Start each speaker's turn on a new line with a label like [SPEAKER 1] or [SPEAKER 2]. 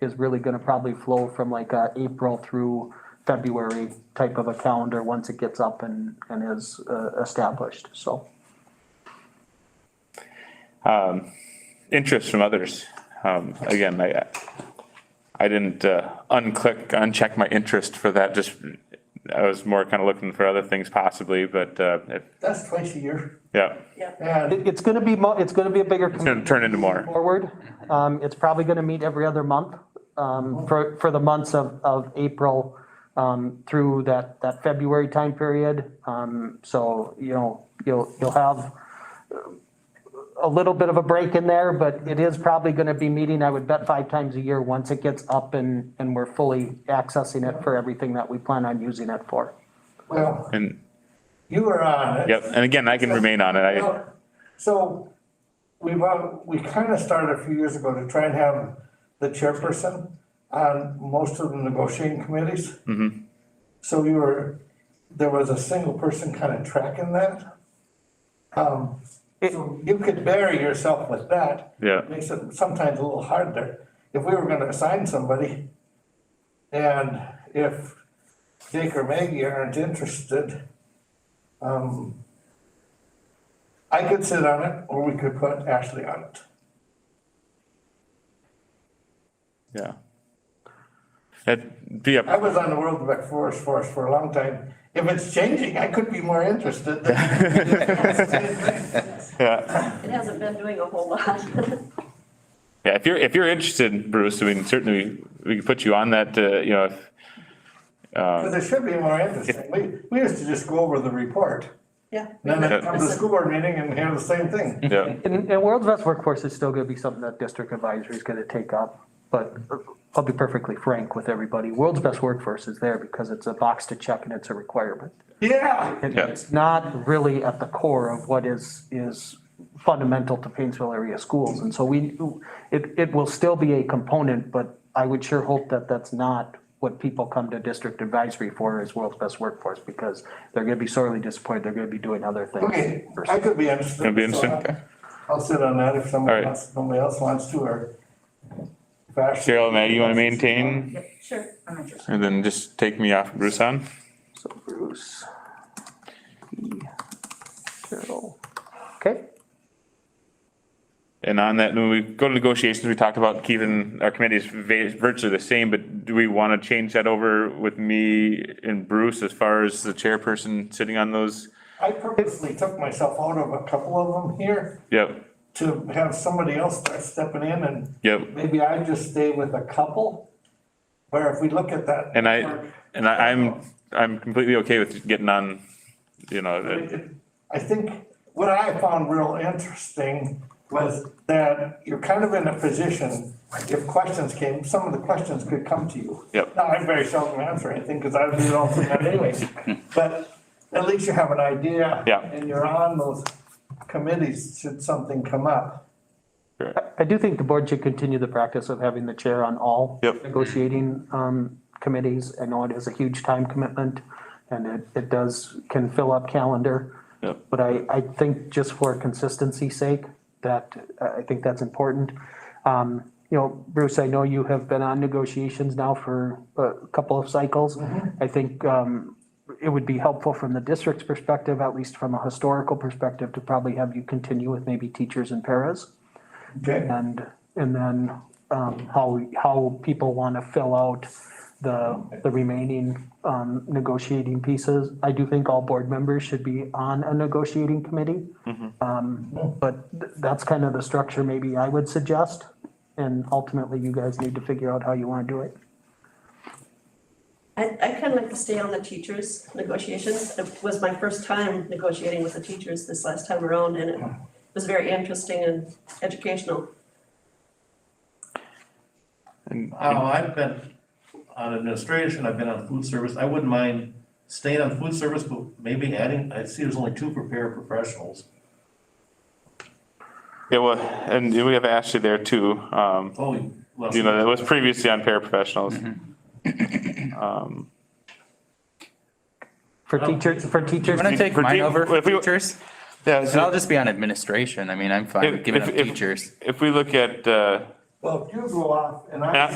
[SPEAKER 1] is really gonna probably flow from like, uh, April through February type of a calendar, once it gets up and, and is, uh, established, so.
[SPEAKER 2] interest from others. Um, again, I, I didn't uh, unclick, uncheck my interest for that. Just I was more kind of looking for other things possibly, but uh, it,
[SPEAKER 3] That's twice a year.
[SPEAKER 2] yeah,
[SPEAKER 3] And
[SPEAKER 1] It, it's gonna be mo, it's gonna be a bigger
[SPEAKER 2] it's
[SPEAKER 1] commitment
[SPEAKER 2] going to turn into more.
[SPEAKER 1] forward. Um, it's probably gonna meet every other month, um, for, for the months of, of April, um, through that, that February time period. Um, so, you know, you'll, you'll have uh, a little bit of a break in there, but it is probably gonna be meeting, I would bet, five times a year, once it gets up and, and we're fully accessing it for everything that we plan on using it for.
[SPEAKER 3] well,
[SPEAKER 2] And
[SPEAKER 3] you were on it.
[SPEAKER 2] yep, and again, I can remain on it. I
[SPEAKER 3] Well, So we, want- we kind of started a few years ago to try and have the chairperson on most of the negotiating committees. So we were, there was a single person kind of tracking that. Um, so you could bury yourself with that.
[SPEAKER 2] Yeah.
[SPEAKER 3] Makes it sometimes a little hard there. If we were gonna assign somebody and if Jake or Maggie aren't interested, um, I could sit on it, or we could put Ashley on it.
[SPEAKER 2] yeah. It'd be
[SPEAKER 3] I
[SPEAKER 2] up.
[SPEAKER 3] was on the World Rec Forest Force for a long time. If it's changing, I could be more interested. than-
[SPEAKER 2] Yeah.
[SPEAKER 4] It hasn't been doing a whole lot.
[SPEAKER 2] Yeah, if you're if you're interested, Bruce, I mean certainly we could put you on that. Uh, you know, if,
[SPEAKER 3] But it should be more interesting. We, we used to just go over the report.
[SPEAKER 4] Yeah.
[SPEAKER 3] Then I'd come to the school board meeting and hear the same thing.
[SPEAKER 2] yeah.
[SPEAKER 1] And, and World's Best Workforce is still gonna be something that district advisory is gonna take up, but I'll be perfectly frank with everybody, World's Best Workforce is there because it's a box to check and it's a requirement.
[SPEAKER 3] Yeah,
[SPEAKER 1] And
[SPEAKER 2] Yeah.
[SPEAKER 1] It's not really at the core of what is, is fundamental to Painesville area schools, and so we, it, it will still be a component, but I would sure hope that that's not what people come to district advisory for is World's Best Workforce, because they're gonna be sorely disappointed, they're gonna be doing other things.
[SPEAKER 3] okay, I could be interested.
[SPEAKER 2] It'd be interesting.
[SPEAKER 3] So I'll sit on that if
[SPEAKER 2] All
[SPEAKER 3] somebody
[SPEAKER 2] right.
[SPEAKER 3] else, somebody else wants to, or. if Ashley-
[SPEAKER 2] Cheryl, Maggie, you want to maintain,
[SPEAKER 4] Yep, Sure. I'm interested.
[SPEAKER 2] and then just take me off, Bruce on.
[SPEAKER 1] So Bruce. E, Carol. Okay,
[SPEAKER 2] And on that, when we go to negotiations, we talked about keeping our committees va- virtually the same, but do we want to change that over with me and Bruce as far as the chairperson sitting on those?
[SPEAKER 3] I purposely took myself out of a couple of them here.
[SPEAKER 2] Yep,
[SPEAKER 3] to have somebody else start stepping in and
[SPEAKER 2] yep.
[SPEAKER 3] maybe I just stay with a couple. Where if we look at that.
[SPEAKER 2] And I,
[SPEAKER 3] network,
[SPEAKER 2] and I, I'm, I'm completely okay with getting on, you know,
[SPEAKER 3] it-
[SPEAKER 2] the-
[SPEAKER 3] it- I think what I found real interesting was that you're kind of in a position, if questions came, some of the questions could come to you.
[SPEAKER 2] Yep.
[SPEAKER 3] Now, I very seldom answer anything because I do it all from that anyways, but at least you have an idea.
[SPEAKER 2] Yeah.
[SPEAKER 3] And you're on those committees should something come up.
[SPEAKER 1] I do think the board should continue the practice of having the chair on all
[SPEAKER 2] Yep.
[SPEAKER 1] negotiating um, committees. I know it is a huge time commitment and it, it does, can fill up calendar.
[SPEAKER 2] Yep.
[SPEAKER 1] But I, I think just for consistency's sake, that, uh, I I think that's important. Um, You know, Bruce, I know you have been on negotiations now for a couple of cycles.
[SPEAKER 2] Mm-hmm.
[SPEAKER 1] I think um, it would be helpful from the district's perspective, at least from a historical perspective, to probably have you continue with maybe teachers and paras.
[SPEAKER 3] Okay.
[SPEAKER 1] And, and then um, how, how people want to fill out the, the remaining um, negotiating pieces. I do think all board members should be on a negotiating committee. Um, But th- that's kind of the structure maybe I would suggest. And ultimately, you guys need to figure out how you want to do it.
[SPEAKER 4] I, I kind of like to stay on the teachers negotiations. It was my first time negotiating with the teachers this last time around and it was very interesting and educational.
[SPEAKER 5] Oh, I've been on administration, I've been on food service, I wouldn't mind staying on food service, but maybe adding, I see there's only two for paraprofessionals.
[SPEAKER 2] yeah, well, and we have Ashley there too. Um,
[SPEAKER 5] Oh, well,
[SPEAKER 2] you know, that was previously on
[SPEAKER 6] Mm-hmm.
[SPEAKER 2] paraprofessionals.
[SPEAKER 1] For teachers, for teachers,
[SPEAKER 6] I'm gonna take
[SPEAKER 2] For
[SPEAKER 6] mine
[SPEAKER 2] team-
[SPEAKER 6] over for
[SPEAKER 2] if we-
[SPEAKER 6] teachers,
[SPEAKER 2] Yeah,
[SPEAKER 6] and I'll
[SPEAKER 2] so
[SPEAKER 6] just be on administration. I mean, I'm fine
[SPEAKER 2] If-
[SPEAKER 6] with giving
[SPEAKER 2] if-
[SPEAKER 6] up
[SPEAKER 2] if-
[SPEAKER 6] teachers.
[SPEAKER 2] if we look at, uh,
[SPEAKER 3] Well, if you go off and I.
[SPEAKER 2] Yeah.